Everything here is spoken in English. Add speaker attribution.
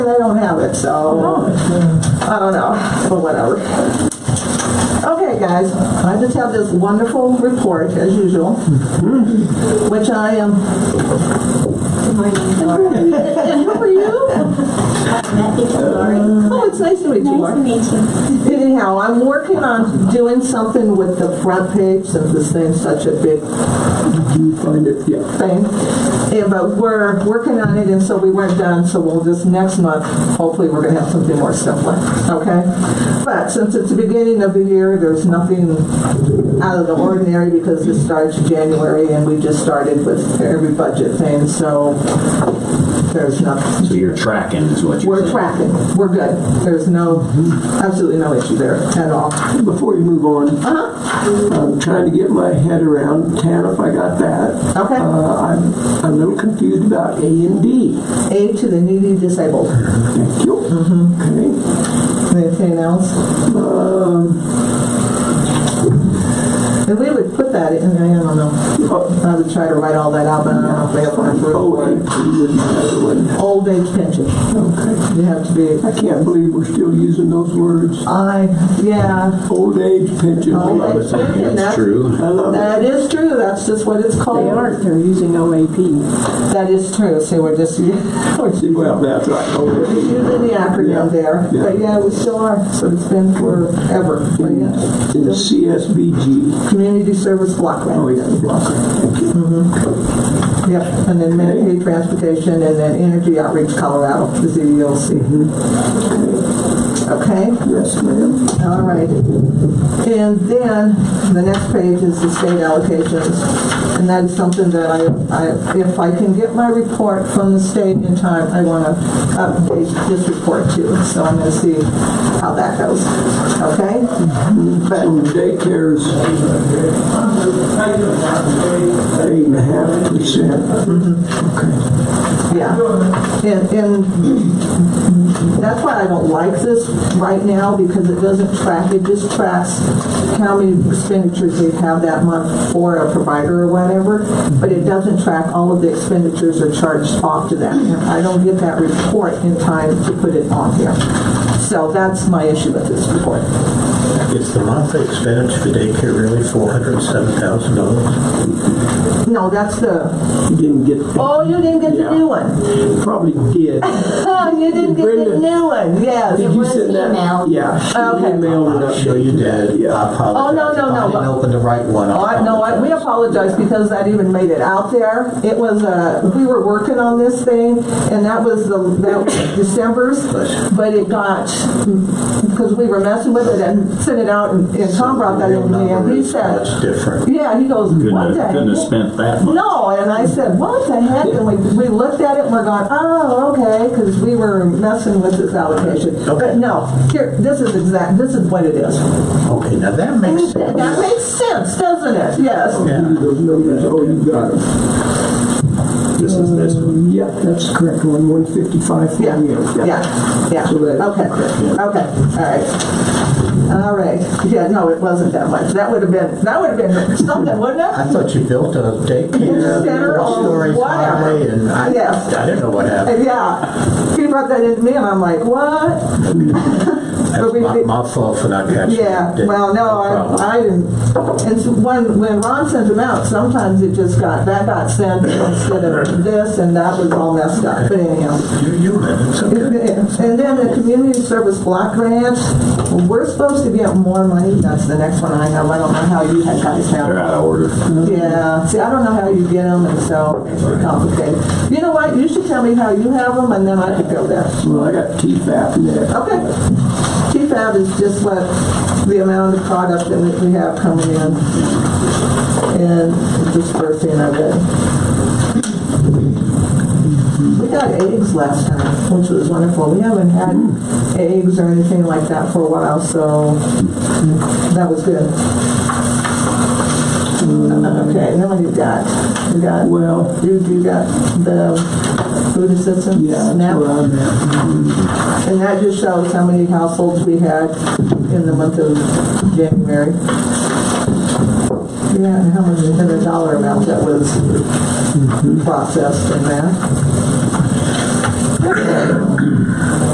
Speaker 1: They don't have it, so I don't know, but whatever. Okay, guys, I just have this wonderful report as usual, which I am. And who are you? Oh, it's nice to meet you, Laura.
Speaker 2: Nice to meet you.
Speaker 1: Anyhow, I'm working on doing something with the front page since this thing's such a big
Speaker 3: You find it, yeah.
Speaker 1: thing. Yeah, but we're working on it, and so we weren't done, so we'll just, next month, hopefully, we're gonna have something more simpler, okay? But since it's the beginning of the year, there's nothing out of the ordinary, because it starts January, and we just started with every budget thing, so there's nothing.
Speaker 4: So you're tracking is what you're
Speaker 1: We're
Speaker 4: saying?
Speaker 1: tracking, we're good, there's no, absolutely no issue there at all.
Speaker 3: Before you move on, I'm trying to get my head around TANF, I got that.
Speaker 1: Okay.
Speaker 3: Uh, I'm, I'm a little confused about A and D.
Speaker 1: Aid to the needy disabled.
Speaker 3: Thank you. Okay.
Speaker 1: Mm-hmm. Anything else? Um. And we would put that in, I don't know,
Speaker 3: Oh,
Speaker 1: I would try to write all that out, but I don't know if we have one
Speaker 3: oh,
Speaker 1: for
Speaker 3: and P is another one.
Speaker 1: old age pension.
Speaker 3: Okay.
Speaker 1: You have to be,
Speaker 3: I can't believe we're still using those words.
Speaker 1: I, yeah,
Speaker 3: Old age pension.
Speaker 1: Oh,
Speaker 3: I
Speaker 4: I was thinking
Speaker 1: That's-
Speaker 4: it's true.
Speaker 3: love it.
Speaker 1: that is true, that's just what it's
Speaker 5: They
Speaker 1: called.
Speaker 5: aren't, they're using OAP.
Speaker 1: That is true, see, we're just using
Speaker 3: Oh, See, Well, that's right. Old age.
Speaker 1: the
Speaker 3: Yeah.
Speaker 1: acronym there,
Speaker 3: Yeah. Mm-hmm.
Speaker 1: but yeah, we still are, so it's been forever. But yeah.
Speaker 3: In the CSBG.
Speaker 1: Community service block grant.
Speaker 3: Oh, yeah, blocker. Thank you.
Speaker 1: Yep, and then Medicaid transportation, and then Energy Outreach Colorado, the E CDLC. Mm-hmm. Okay,
Speaker 3: Yes, ma'am.
Speaker 1: all right. And then, the next page is the state allocations, and that is something that I, I, if I can get my report from the state in time, I wanna update this report too, so I'm gonna see how that goes, okay?
Speaker 3: So daycare's eight and a half percent.
Speaker 1: Yeah, and, and that's why I don't like this right now, because it doesn't track, it just tracks how many expenditures we have that month for a provider or whatever, but it doesn't track all of the expenditures are charged off to that. And I don't get that report in time to put it on here. So that's my issue with this report.
Speaker 6: Is the monthly expense for daycare really four hundred and seven thousand dollars?
Speaker 1: No, that's the,
Speaker 3: You didn't get,
Speaker 1: oh, you didn't get the new one.
Speaker 3: probably did.
Speaker 1: Oh, you didn't get the
Speaker 3: Brenda.
Speaker 1: new one, yes.
Speaker 3: Did you send that?
Speaker 2: emailed.
Speaker 3: Yeah. she
Speaker 1: Oh, Okay.
Speaker 3: Emailed it up.
Speaker 6: Sure you did.
Speaker 3: Yeah.
Speaker 6: I apologize.
Speaker 1: Oh, no, no,
Speaker 6: If
Speaker 1: no.
Speaker 6: I didn't open the right one.
Speaker 1: Oh, I, no, I, we apologize because that even made it out there. It was, uh, we were working on this thing and that was the, that was December's, but it got, because we were messing with it and sent it out and, and Tom brought that in to me and he said,
Speaker 6: That's different.
Speaker 1: yeah, he goes,
Speaker 4: Couldn't
Speaker 1: what
Speaker 4: have,
Speaker 1: the
Speaker 4: couldn't have
Speaker 1: heck?
Speaker 4: spent that much.
Speaker 1: No, and I said, what the heck? And we, we looked at it and we're going, oh, okay, because we were messing with this allocation. But no, here, this is exact, this is what it is.
Speaker 6: Okay, now that makes sense.
Speaker 1: That makes sense, doesn't it? Yes.
Speaker 3: Give you Those numbers, oh, you got them.
Speaker 7: This is this one.
Speaker 3: Yeah, that's the correct one, one fifty-five for
Speaker 1: Yeah,
Speaker 3: you.
Speaker 1: yeah, yeah,
Speaker 3: So that-
Speaker 1: okay, okay, all right. All right, yeah, no, it wasn't that much, that would have been, that would have been something, wouldn't it?
Speaker 6: I thought you built a daycare,
Speaker 1: Center or
Speaker 6: four-story
Speaker 1: whatever.
Speaker 6: high, and I,
Speaker 1: Yes.
Speaker 6: I didn't know what happened.
Speaker 1: And Yeah, he brought that into me, and I'm like, what?
Speaker 6: That's
Speaker 1: we-
Speaker 6: my, my fault for not catching it.
Speaker 1: Yeah,
Speaker 6: Didn't-
Speaker 1: well, no,
Speaker 6: problem.
Speaker 1: I, I didn't, and so when, when Ron sent them out, sometimes it just got, that got sent instead of this, and that was all messed up, but anyhow.
Speaker 6: You, you minutes, okay.
Speaker 1: And then the community service block grant, we're supposed to get more money, that's the next one I have, I don't know how you had guys
Speaker 4: They're
Speaker 1: have.
Speaker 4: out of order.
Speaker 1: Yeah, see, I don't know how you get them, and so it's complicated. You know what, you should tell me how you have them, and then I could go there.
Speaker 3: Well, I got T-FAP next.
Speaker 1: Okay. TFAB is just what the amount of product that we we have coming in and dispersing of it. We got eggs last time, which was wonderful. We haven't had eggs or anything like that for a while, so that was good. Okay, then what do you got? You got,
Speaker 3: Well,
Speaker 1: you, you got the food assistance?
Speaker 3: yeah, that's
Speaker 1: SNAP?
Speaker 3: where I'm at.
Speaker 1: And that just shows how many households we had in the month of January. Yeah, and how much, and the dollar amount that was processed in that.